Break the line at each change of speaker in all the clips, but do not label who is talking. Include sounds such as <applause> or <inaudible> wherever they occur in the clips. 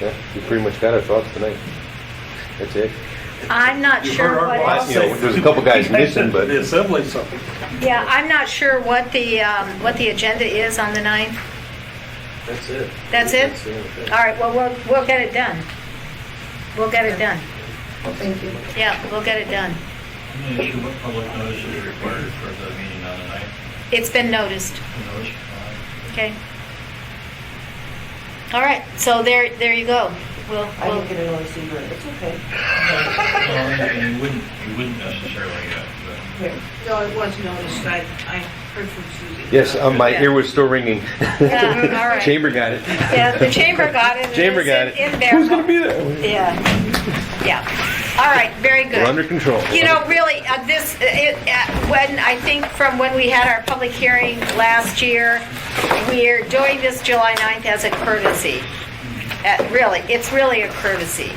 Yeah, you pretty much got our thoughts tonight. That's it.
I'm not
You
sure
heard our
what,
boss.
You know, there's a couple
<laughs>
guys missing, but
The assembly's something.
yeah, I'm not sure what the, um, what the agenda is on the ninth.
That's it.
That's it?
That's the only thing.
All right, well, we'll, we'll get it done. We'll get it done.
Thank you.
Yeah, we'll get it done.
I'm not sure what public notice is required for the meeting on the ninth.
It's been noticed,
Notice, uh,
okay? All right, so there, there you go. We'll,
I
we'll,
didn't get a notice either. It's okay.
well, and You wouldn't, you wouldn't necessarily, uh, but.
Here.
No, it was noticed. I, I heard from Susie.
yes, uh, my ear was still ringing.
Yeah,
<laughs>
uh, all right.
Chamber got it.
yeah, the chamber got it. and
Chamber
it's
got
in-
it.
In there.
Who's gonna be there?
Yeah, yeah. All right, very good.
We're under control.
You know, really, uh, this, it, uh, when, I think from when we had our public hearing last year, we're doing this July 9th as a courtesy. Uh, Really, it's really a courtesy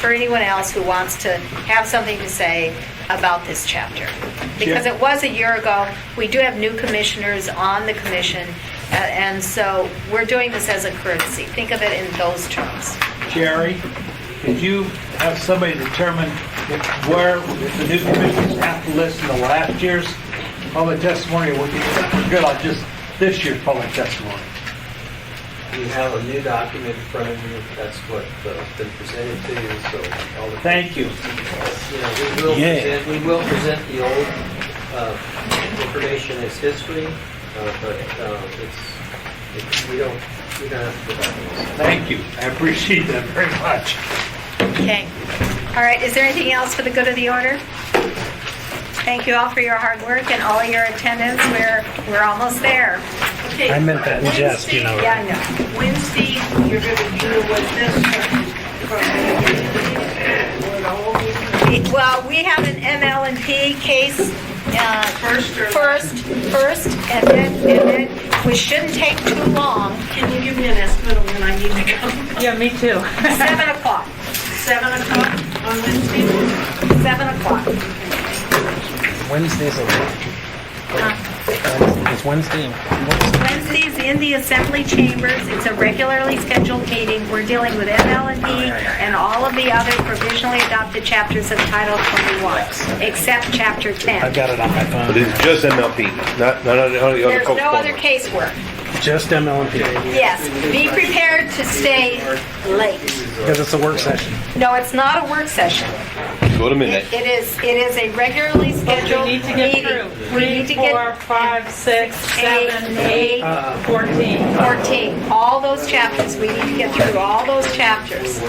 for anyone else who wants to have something to say about this chapter. Because it was a year ago, we do have new commissioners on the commission, uh, and so we're doing this as a courtesy. Think of it in those terms.
Jerry, could you have somebody determine if- where if the new commissioners have to listen to last year's public testimony? Or we can, we're good on just this year's public testimony.
You have a new document in front of you, that's what uh, been presented to you, so all the...
Thank you.
You know, we will
Yeah.
present, we will present the old uh, information as history, uh, but uh, it's, it's- we don't, we don't have to... go back and listen.
Thank you. I appreciate that very much.
Okay. All right, is there anything else for the good of the order? Thank you all for your hard work and all your attendance. We're, we're almost there.
I meant that in jest, you know.
Yeah, I know.
Wednesday, you're gonna deal with this from from the beginning, or the whole meeting,
We- Well, we have an ML and P case uh,
first or?
first, first, and then, and then, we shouldn't take too long,
<laughs> Can you give me an estimate of when I need to come?
Yeah, me too.
7 o'clock,
Seven o'clock on Wednesday?
7 o'clock.
Wednesday's a
Uh,
it's Wednesday.
Wednesday's in the Assembly Chambers, it's a regularly scheduled meeting, we're dealing with ML
Oh,
and P and all of the other provisionally adopted chapters of Title 21, except Chapter 10.
I've got it on my phone.
But it's just MLP, not, not on the other
There's
folks'
no
phone.
other casework.
Just MLMP
Yes, be prepared to stay late.
because it's a work session.
No, it's not a work session.
Go to midnight.
It it is, it is a regularly scheduled
need to get
meeting.
through.
We need
Three,
to
four,
get
five, six,
eight,
seven,
eight,
eight, fourteen.
14, all those chapters, we need to get through all those chapters.